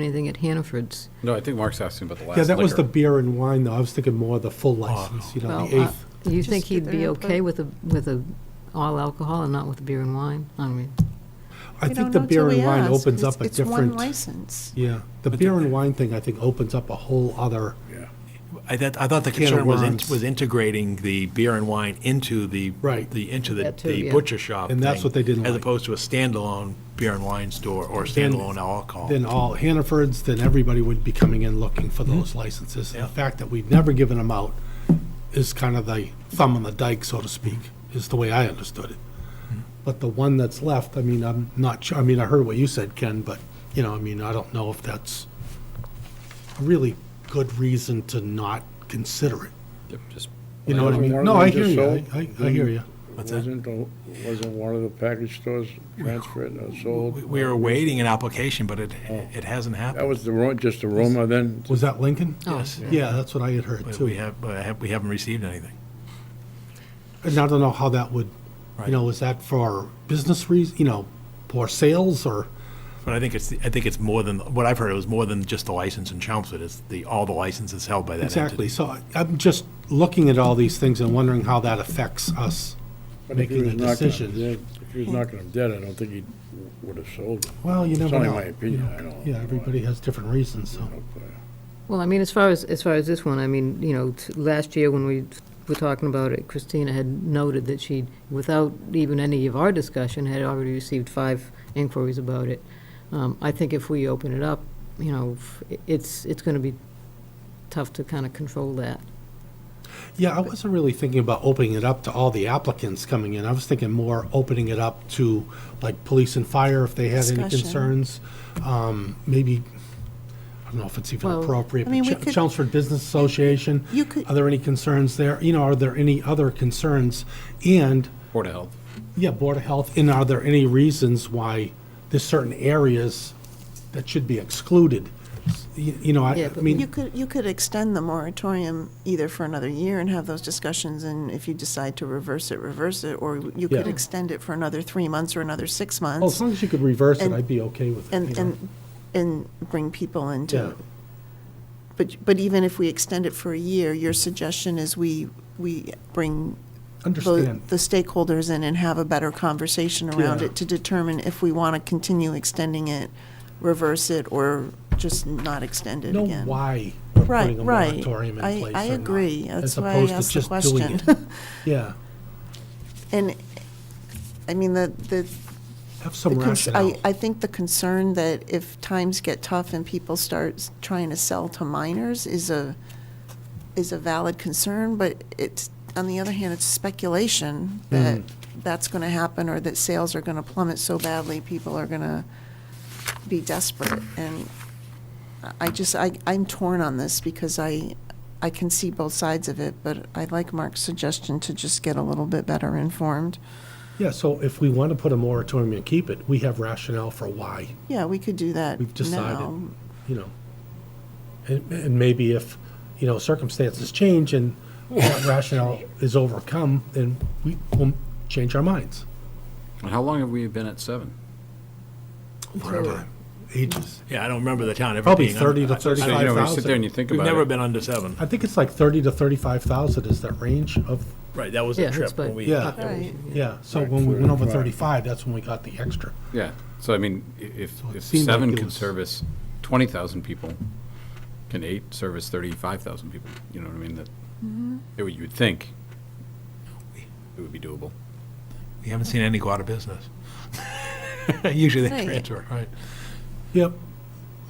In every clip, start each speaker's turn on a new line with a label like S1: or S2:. S1: anything at Hannaford's.
S2: No, I think Mark's asking about the last
S3: Yeah, that was the
S2: liquor. Oh.
S3: beer and wine, though. I was thinking more of the full license, you know, the
S1: Well, uh,
S3: eighth.
S1: Do you think
S4: Just get
S1: he'd be
S4: their
S1: okay
S4: input.
S1: with a, with a all alcohol and not with beer and wine? I mean,
S3: I
S4: uh, We
S3: think
S4: don't
S3: the
S4: know till
S3: beer and
S4: we
S3: wine
S4: ask.
S3: opens
S4: It's-
S3: up a
S4: It's one
S3: different,
S4: license.
S3: yeah. The
S5: But
S3: beer
S5: the-
S3: and wine thing, I think, opens up a whole other,
S5: I thought, I thought the
S3: Can of
S5: concern was, in-
S3: worms.
S5: was integrating the beer and wine into the.
S3: Right.
S5: The, into the,
S1: That too,
S5: the
S1: yeah.
S5: butcher shop.
S3: And that's
S5: thing,
S3: what they didn't
S5: As
S3: like.
S5: opposed to a standalone beer and wine store or
S3: Then-
S5: standalone alcohol.
S3: then all Hannaford's, then everybody would be coming in looking for those licenses. And
S5: Mm-hmm. Yeah.
S3: The fact that we've never given them out is kind of the thumb on the dike, so to speak, is the way I understood it.
S5: Mm-hmm.
S3: But the one that's left, I mean, I'm not sure, I mean, I heard what you said, Ken, but, you know, I mean, I don't know if that's a really good reason to not consider it.
S2: Yep, just-
S3: You know what I
S6: Wasn't
S3: mean?
S6: one of
S3: No, I
S6: them
S3: hear
S6: just
S3: you. I,
S6: sold? Mm-hmm.
S3: I I hear you.
S5: What's that?
S6: Wasn't, the- wasn't one of the package stores transferred or
S5: We-
S6: sold?
S5: We were awaiting an application, but it, it hasn't
S6: That
S5: happened.
S6: was the ru, just the rumor then?
S3: Was that Lincoln?
S1: oh,
S3: Yeah, that's what I had heard
S5: But
S3: too.
S5: We have, but I have- we haven't received anything.
S3: And I don't know how that would, you
S5: Right.
S3: know, is that for business reasons, you know, for sales or?
S5: But I think it's, I think it's more than, what I've heard, it was more than just the license in Chelmsford. It's the, all the licenses held by that entity.
S3: Exactly. So I- I'm just looking at all these things and wondering how that affects us.
S6: But if he
S3: Making
S6: was
S3: a
S6: knocking 'em
S3: decision.
S6: dead- If he was knocking them dead, I don't think he would have sold them.
S3: Well, you
S6: It's
S3: never
S6: only
S3: know.
S6: my opinion,
S3: you know.
S6: I don't-
S3: Yeah, everybody has different reasons, so.
S1: Well, I mean, as far as, as far as this one, I mean, you know, t- last year when we were talking about it, Christina had noted that she, without even any of our discussion, had already received five inquiries about it. Um, I think if we open it up, you know, f- i- it's, it's gonna be tough to kind of control that.
S3: Yeah, I wasn't really thinking about opening it up to all the applicants coming in. I was thinking more opening it up to like police and fire if they had any
S4: Discussion.
S3: concerns. Um, Maybe, I don't know if it's even
S1: Well,
S3: appropriate,
S4: I
S3: but
S4: mean, we
S3: Ch-
S4: could-
S3: Chelmsford Business Association.
S4: You could-
S3: Are there any concerns there? You know, are there any other concerns? And,
S2: Board of Health.
S3: yeah, Board of Health, and are there any reasons why there's certain areas that should be excluded? S- y- You know, I
S1: Yeah,
S3: I
S1: but
S3: mean.
S4: You could, you could extend the moratorium either for another year and have those discussions, and if you decide to reverse it, reverse it, or you could
S3: Yeah. Oh,
S4: extend it for another three months or another six
S3: Well, as
S4: months,
S3: long as you could reverse it,
S4: And-
S3: I'd be okay with it. you
S4: and,
S3: know.
S4: and, and bring people into
S3: Yeah.
S4: it. But, but even if we extend it for a year, your suggestion is we, we bring the
S3: Understand.
S4: the stakeholders in and have a better conversation around
S3: Yeah.
S4: it to determine if we want to continue extending it, reverse it, or just not extend it
S3: know
S4: again.
S3: why we're
S4: Right,
S3: putting a
S4: right.
S3: moratorium in
S4: I-
S3: place
S4: I
S3: or not,
S4: agree.
S3: as
S4: That's why I
S3: opposed to
S4: asked the
S3: just doing
S4: question.
S3: it. Yeah,
S4: And, I mean, the, the
S3: have some
S4: the cons- I-
S3: rationale.
S4: I think the concern that if times get tough and people start s- trying to sell to minors is a, is a valid concern, but it's, on the other hand, it's speculation that that's going to happen or that sales are going to plummet so badly, people are going to be desperate. And I- I just, I, I'm torn on this because I, I can see both sides of it, but I like Mark's suggestion to just get a little bit better informed.
S3: Yeah, so if we want to put a moratorium and keep it, we have rationale for why,
S4: Yeah, we could do that
S3: We've decided.
S4: now.
S3: you know. And, and maybe if, you know, circumstances change and that rationale is overcome, then we will change our minds.
S2: And how long have we been at seven?
S3: Forever. Ages.
S5: Yeah, I don't remember the town ever being.
S3: Probably
S5: under-
S3: 30 to
S5: I- I-
S2: So, you know, when you sit there
S3: 35,000.
S2: and you think
S5: We've
S2: about
S5: never
S2: it,
S5: been under seven.
S3: I think it's like 30 to 35,000 is that range of,
S5: Right, that was
S1: Yeah,
S5: the
S1: that's
S5: trip when
S1: fine.
S5: we.
S3: Yeah.
S5: that was-
S4: Right.
S3: yeah, so when we went over
S6: 35.
S3: 35, that's when we got the extra.
S2: yeah. So I mean, i- if,
S3: it
S2: if
S3: seemed like
S2: seven
S3: it
S2: can
S3: was-
S2: service twenty thousand people, can eight service thirty-five thousand people? You know what I mean? That, it would, you would think it would be doable.
S5: We haven't seen any go out of business. Usually they
S4: Right.
S5: transfer, right?
S3: Yep.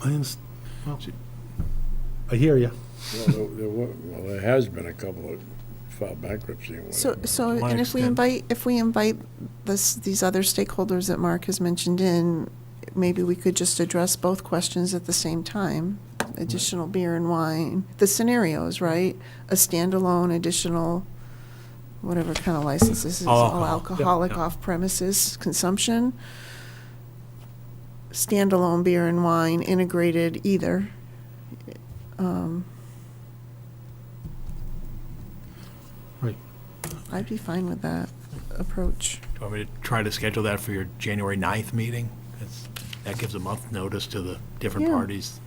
S3: I underst- well, I hear you.
S6: Well, there- there were, well, there has been a couple of filed bankruptcy and
S4: So,
S6: whatever.
S4: so,
S5: one
S4: and if we
S5: extent.
S4: invite, if we invite this, these other stakeholders that Mark has mentioned in, maybe we could just address both questions at the same time. Additional beer and wine, the scenarios, right? A standalone additional, whatever kind of license this is,
S5: All alcohol.
S4: all
S5: Yeah,
S4: alcoholic
S5: yeah.
S4: off-premises consumption. Standalone beer and wine, integrated either. Um,
S3: Right.
S4: I'd be fine with that approach.
S5: Do you want me to try to schedule that for your January 9th meeting? It's- That gives a month notice to the different
S4: Yeah.
S5: parties